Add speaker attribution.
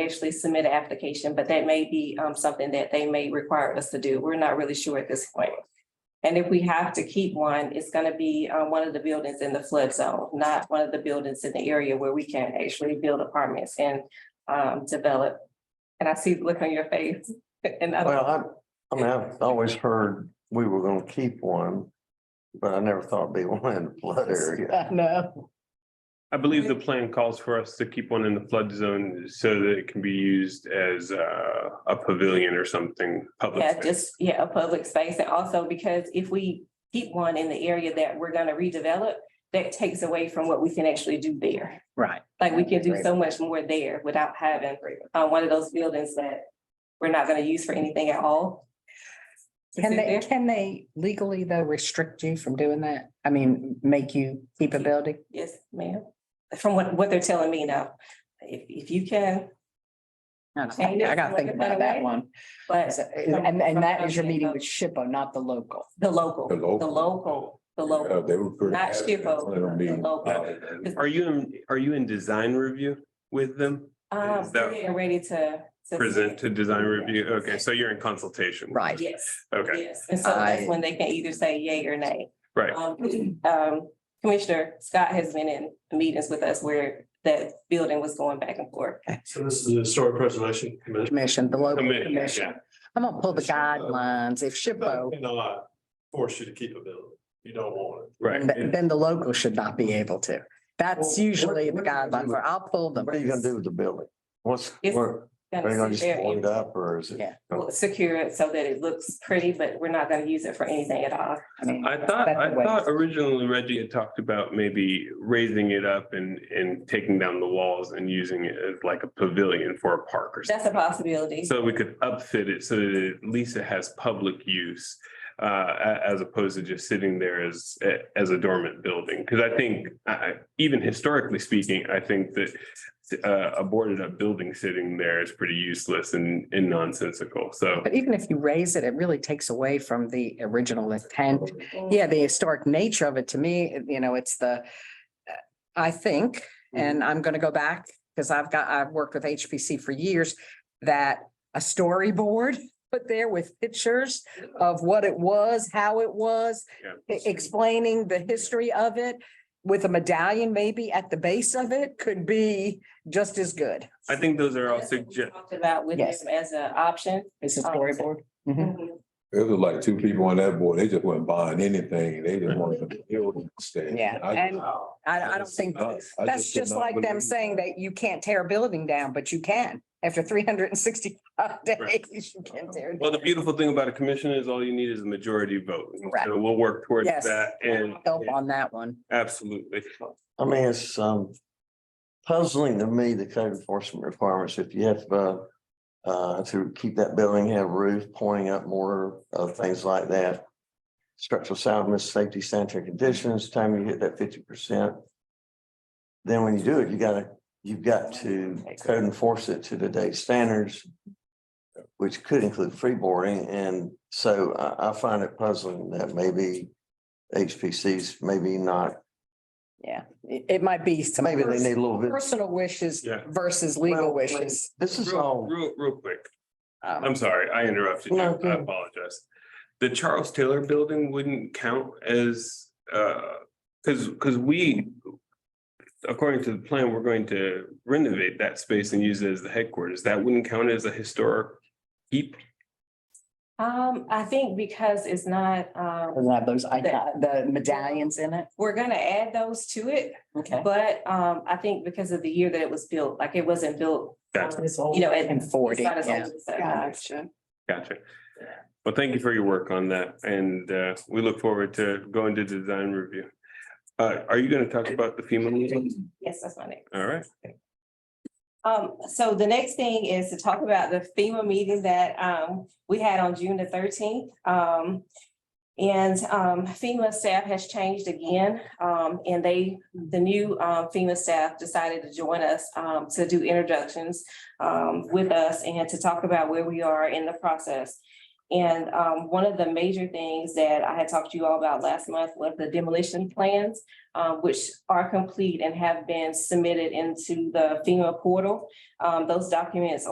Speaker 1: actually submit an application, but that may be um something that they may require us to do. We're not really sure at this point. And if we have to keep one, it's gonna be uh one of the buildings in the flood zone, not one of the buildings in the area where we can actually build apartments and um develop. And I see the look on your face and I,
Speaker 2: Well, I, I mean, I've always heard we were gonna keep one, but I never thought it'd be one in the flood
Speaker 3: uh,
Speaker 2: area.
Speaker 3: know.
Speaker 4: I believe the plan calls for us to keep one in the flood zone so that it can be used as uh, a pavilion or something public.
Speaker 1: yeah,
Speaker 4: space.
Speaker 1: just, yeah, a public space. And also because if we keep one in the area that we're gonna redevelop, that takes away from what we can actually do there.
Speaker 3: Right.
Speaker 1: Like we can do
Speaker 2: Right.
Speaker 1: so much more there without having uh one of those buildings that we're not gonna use for anything at all.
Speaker 3: Can
Speaker 1: Is
Speaker 3: they,
Speaker 1: it there?
Speaker 3: can they legally though restrict you from doing that? I mean, make you keep a building?
Speaker 1: Yes, ma'am. From what what they're telling me now, if if you can,
Speaker 3: I don't know.
Speaker 1: Change it
Speaker 3: I gotta
Speaker 1: to
Speaker 3: think
Speaker 1: look at that
Speaker 3: about that
Speaker 1: way.
Speaker 3: one.
Speaker 1: but
Speaker 3: Is- And, and that is your meeting with SHPO, not the local.
Speaker 1: the local,
Speaker 5: The
Speaker 1: the
Speaker 5: local.
Speaker 1: local, the
Speaker 5: Yeah,
Speaker 1: local.
Speaker 5: They were pretty.
Speaker 1: Not
Speaker 5: adamant
Speaker 1: Shippo,
Speaker 5: on it being-
Speaker 1: the local.
Speaker 4: Are you, in- are you in design review with them?
Speaker 1: Um,
Speaker 4: Is that-
Speaker 1: we're getting ready to. to-
Speaker 4: Present to design review? Okay, so you're in consultation.
Speaker 3: Right.
Speaker 1: Yes.
Speaker 4: Okay,
Speaker 1: Yes, and so that's
Speaker 3: I-
Speaker 1: when they can either say yay or nay.
Speaker 4: right.
Speaker 1: Um, um, Commissioner Scott has been in meetings with us where that building was going back and forth.
Speaker 6: So this is the historic preservation commission.
Speaker 3: Commission, the local
Speaker 4: Committee, yeah.
Speaker 3: commission. I'm gonna pull the
Speaker 2: uh,
Speaker 3: guidelines. If SHPO,
Speaker 6: Cannot force you to keep a building. You don't want it.
Speaker 4: Right.
Speaker 3: then then the local should not be able to.
Speaker 2: Well,
Speaker 3: That's
Speaker 2: what-
Speaker 3: usually the
Speaker 2: what are you gonna
Speaker 3: guideline
Speaker 2: do?
Speaker 3: for, I'll pull them.
Speaker 2: What are you gonna do with the building? What's,
Speaker 1: It's
Speaker 2: where, are you gonna
Speaker 1: Gonna
Speaker 2: just
Speaker 1: sit there
Speaker 2: blow
Speaker 1: and
Speaker 2: it up or is it?
Speaker 3: Yeah.
Speaker 1: we'll Secure it so that it looks pretty, but we're not gonna use it for anything at all.
Speaker 3: I mean,
Speaker 4: I
Speaker 3: Mm-hmm.
Speaker 4: thought,
Speaker 3: that's
Speaker 4: I
Speaker 3: the way-
Speaker 4: thought originally Reggie had talked about maybe raising it up and, and taking down the walls and using it as like a pavilion for a park or something.
Speaker 1: That's a possibility.
Speaker 4: So we could upfit it so that at least it has public use. Uh, a- as opposed to just sitting there as, as a dormant building, because I think, I, I- even historically speaking, I think that. Uh, a boarded up building sitting there is pretty useless and, and nonsensical, so.
Speaker 3: But even if you raise it, it really takes away from the original intent. Yeah, the historic nature of it, to me, you know, it's the, uh, I think, and I'm gonna go back, because I've got, I've worked with HPC for years, that a storyboard put there with pictures of what it was, how it was,
Speaker 4: Yeah.
Speaker 3: e- explaining the history of it with a medallion maybe at the base of it could be just as good.
Speaker 4: I think those are all
Speaker 1: That's what we
Speaker 4: suggestions.
Speaker 1: Talked about with
Speaker 3: Yes.
Speaker 1: them as an option.
Speaker 3: It's a
Speaker 1: Um,
Speaker 3: storyboard. Mhm.
Speaker 5: It was like two people on that board, they just weren't buying anything, they just wanted the building to stay.
Speaker 3: Yeah,
Speaker 5: I-
Speaker 3: and-
Speaker 6: Wow.
Speaker 3: I, I
Speaker 5: I
Speaker 3: don't
Speaker 5: just-
Speaker 3: think.
Speaker 5: I- I
Speaker 3: That's
Speaker 5: could
Speaker 3: just
Speaker 5: not
Speaker 3: like them
Speaker 5: believe-
Speaker 3: saying that you can't tear a building down, but you can. After three hundred and sixty-five
Speaker 4: Right.
Speaker 3: days, you can tear. it
Speaker 4: Well, the
Speaker 3: down.
Speaker 4: beautiful thing about a commission is all you need is a majority vote. And
Speaker 3: Correct.
Speaker 4: So we'll work towards
Speaker 3: Yes.
Speaker 4: that and,
Speaker 3: Help on that one.
Speaker 4: absolutely.
Speaker 2: I mean, it's, um, puzzling to me, the code enforcement requirements, if you have, uh, uh, to keep that building, have roof pointing up more, other things like that. Structural soundness, safety sanitary conditions, time you hit that fifty percent. Then when you do it, you gotta, you've got to code enforce it to today's standards. Which could include freeboarding, and so I, I find it puzzling that maybe HPC's maybe not
Speaker 3: Yeah, it, it might be some
Speaker 2: Maybe they need a little bit.
Speaker 3: personal wishes
Speaker 4: Yeah.
Speaker 3: versus legal
Speaker 2: Well,
Speaker 3: wishes.
Speaker 2: This is
Speaker 4: Real,
Speaker 2: all,
Speaker 4: real, real quick.
Speaker 3: Um,
Speaker 4: I'm sorry, I interrupted you.
Speaker 2: No,
Speaker 4: I
Speaker 2: good.
Speaker 4: apologize. The Charles Taylor Building wouldn't count as, uh, because, because we, according to the plan, we're going to renovate that space and use it as the headquarters. That wouldn't count as a historic heap.
Speaker 1: Um, I think because it's not, um,
Speaker 3: Doesn't have those, icon- the medallions in it.
Speaker 1: we're gonna add those to it,
Speaker 3: Okay.
Speaker 1: but um, I think because of the year that it was built, like it wasn't built.
Speaker 4: Gotcha.
Speaker 1: um,
Speaker 3: You
Speaker 1: You know, it-
Speaker 3: And
Speaker 1: it's
Speaker 3: forty,
Speaker 1: not as old
Speaker 3: yeah.
Speaker 1: as that.
Speaker 3: Gotcha.
Speaker 4: Gotcha. Well, thank you for your work on that and uh, we look forward to going to design review. Uh, are you going to talk about the FEMA? liaison?
Speaker 1: Yes, that's my name.
Speaker 4: All right.
Speaker 1: Um, so the next thing is to talk about the FEMA meeting that, um, we had on June the thirteenth. Um, and, um, FEMA staff has changed again, um, and they, the new, um, FEMA staff decided to join us, um, to do introductions, um, with us and to talk about where we are in the process. And um, one of the major things that I had talked to you all about last month was the demolition plans, um, which are complete and have been submitted into the FEMA portal. Um, those documents